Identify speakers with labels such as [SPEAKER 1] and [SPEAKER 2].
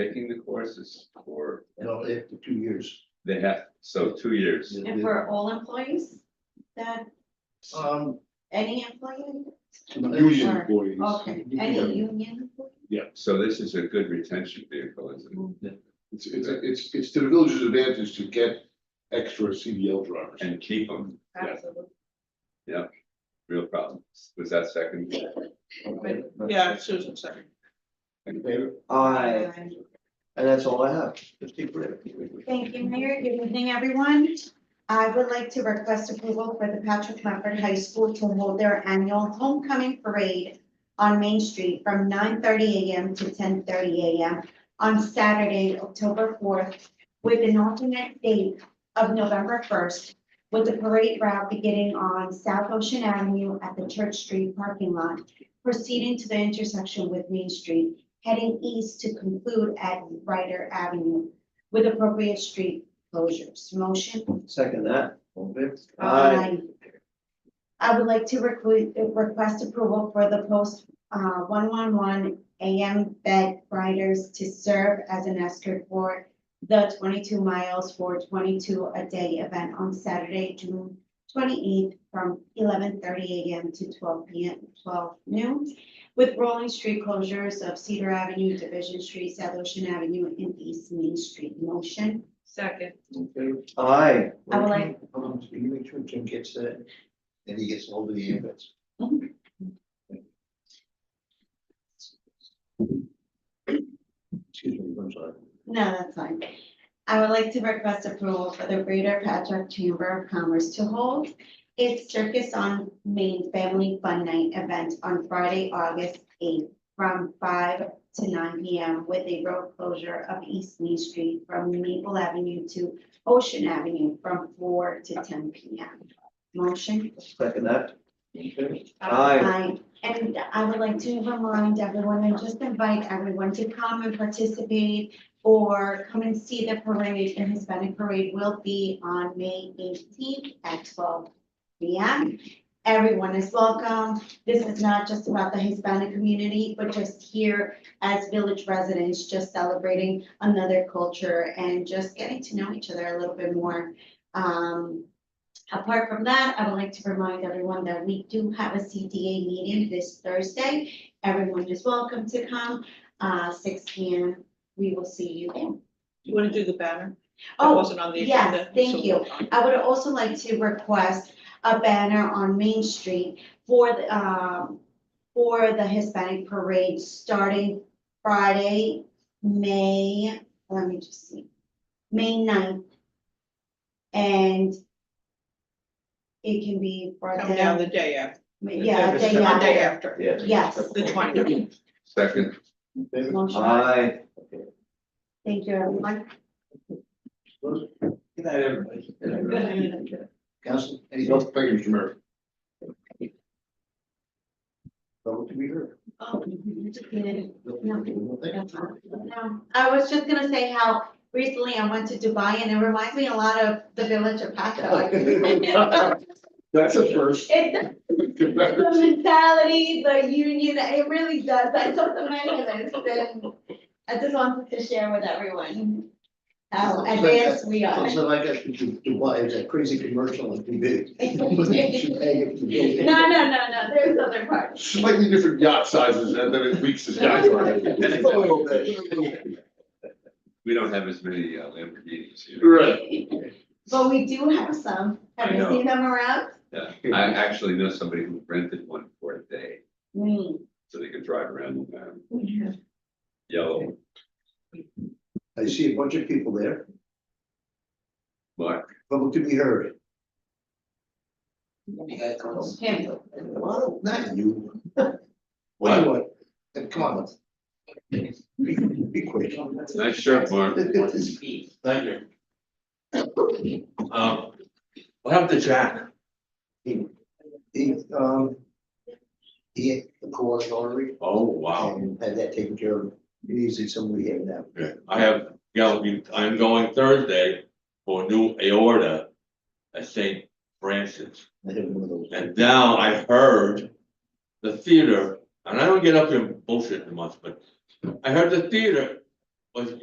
[SPEAKER 1] taking the courses for,
[SPEAKER 2] No, after two years.
[SPEAKER 1] they have, so two years.
[SPEAKER 3] And for all employees, that,
[SPEAKER 2] Um,
[SPEAKER 3] any employee?
[SPEAKER 2] union
[SPEAKER 3] Or-
[SPEAKER 2] employees.
[SPEAKER 3] Okay, any union? employee?
[SPEAKER 1] So this is a good retention vehicle,
[SPEAKER 2] Mm.
[SPEAKER 1] isn't
[SPEAKER 2] It's, it's, it's, it's to the village's advantage to get extra CDL drivers.
[SPEAKER 1] it? And keep them, Yeah.
[SPEAKER 3] Absolutely.
[SPEAKER 1] real problem. Was that second?
[SPEAKER 4] Yeah, Susan, sorry.
[SPEAKER 2] In favor?
[SPEAKER 5] I, and that's all I have.
[SPEAKER 3] Thank you, Mayor. Good evening, everyone. I would like to request approval for the Patrick Lambert High School to hold their annual homecoming parade on Main Street from nine thirty AM to ten thirty AM on Saturday, October fourth, with an alternate date of November first, with the parade route beginning on South Ocean Avenue at the Church Street parking lot, proceeding to the intersection with Main Street, heading east to conclude at Ryder Avenue with appropriate street closures. Motion?
[SPEAKER 5] Second that. all in favor?
[SPEAKER 3] Aye. I would like to requ- request approval for the post uh, one-one-one AM bed riders to serve as an escort for the twenty-two miles for twenty-two a day event on Saturday, June twenty-eighth from eleven-thirty AM to twelve PM, twelve noon, with rolling street closures of Cedar Avenue, Division Street, South Ocean Avenue, and East Main Street. Motion?
[SPEAKER 4] Second.
[SPEAKER 5] In favor? Aye.
[SPEAKER 3] I would like-
[SPEAKER 5] Um, so you make sure Jim gets that,
[SPEAKER 2] And he gets all the ambulance.
[SPEAKER 5] excuse me, I'm sorry.
[SPEAKER 3] No, that's fine. I would like to request approval for the Greater Patrick Chamber of Commerce to hold its Circus on Main Family Fun Night event on Friday, August eighth, from five to nine P M with a road closure of East Main Street from Maple Avenue to Ocean Avenue from four to ten P M. Motion?
[SPEAKER 5] Second that. all in favor? Aye.
[SPEAKER 3] Aye. And I would like to remind everyone and just invite everyone to come and participate or come and see the parade. The Hispanic parade will be on May eighteenth at twelve P M. Everyone is welcome. This is not just about the Hispanic community, but just here as village residents, just celebrating another culture and just getting to know each other a little bit more. Um, Apart from that, I would like to remind everyone that we do have a CDA meeting this Thursday. Everyone is welcome to come, uh, six P M. We will see you then.
[SPEAKER 4] You want to do the banner? That
[SPEAKER 3] Oh,
[SPEAKER 4] wasn't on the
[SPEAKER 3] yes,
[SPEAKER 4] agenda.
[SPEAKER 3] thank
[SPEAKER 4] so-
[SPEAKER 3] you. I would also like to request a banner on Main Street for, the, um, for the Hispanic parade starting Friday, May, let me just see, May 9th. And it can be brought
[SPEAKER 4] Come down
[SPEAKER 3] down,
[SPEAKER 4] the day after,
[SPEAKER 3] yeah,
[SPEAKER 5] It's
[SPEAKER 3] day
[SPEAKER 5] the
[SPEAKER 4] the day
[SPEAKER 3] after.
[SPEAKER 4] after,
[SPEAKER 5] Yes.
[SPEAKER 3] Yes.
[SPEAKER 4] the twentieth.
[SPEAKER 1] Second,
[SPEAKER 5] In favor?
[SPEAKER 3] Motion.
[SPEAKER 5] Aye.
[SPEAKER 3] Thank you, everyone.
[SPEAKER 5] Good night, everybody.
[SPEAKER 2] Council, anything else? Thank you, Mr. Mayor.
[SPEAKER 5] Vote to be heard.
[SPEAKER 3] Oh, you just needed-
[SPEAKER 2] No, thank you.
[SPEAKER 3] that's all. No, Um, I was just gonna say how recently I went to Dubai and it reminds me a lot of the village of Paco.
[SPEAKER 2] That's a first.
[SPEAKER 3] It, the mentality, the union, it really does. I took the many of this and I just wanted to share with everyone how advanced we are.
[SPEAKER 2] So I guess we should do why is that crazy commercial on TV. But they should pay if you
[SPEAKER 3] No,
[SPEAKER 2] do.
[SPEAKER 3] no, no, no, there's other parts.
[SPEAKER 2] Slightly different yacht sizes and then it reaches yacht. size. Just a little bit.
[SPEAKER 1] we don't have as many uh, Lamborghinis here.
[SPEAKER 2] Right.
[SPEAKER 3] But we do have some. Have
[SPEAKER 1] I
[SPEAKER 3] you
[SPEAKER 1] know.
[SPEAKER 3] seen them around?
[SPEAKER 1] Yeah, I actually know somebody who rented one for a day,
[SPEAKER 3] Me.
[SPEAKER 1] so they could drive around in um, yellow
[SPEAKER 5] I see a bunch of people there.
[SPEAKER 1] mark.
[SPEAKER 5] Vote to be heard.
[SPEAKER 3] Him.
[SPEAKER 2] Well, not you. What do you want? Uh, Come on. let's- Be, be quick.
[SPEAKER 1] Nice shirt, Mark.
[SPEAKER 6] Thank you. Um, what happened to Jack?
[SPEAKER 2] He, um, he had the carotid artery
[SPEAKER 6] Oh, wow.
[SPEAKER 2] and had that taken care of. Usually somebody had that.
[SPEAKER 6] I have, you know, I'm going Thursday for a new aorta at St. Francis.
[SPEAKER 2] I had one of those.
[SPEAKER 6] And now I heard the theater, and I don't get up here and bullshit much, but I heard the theater was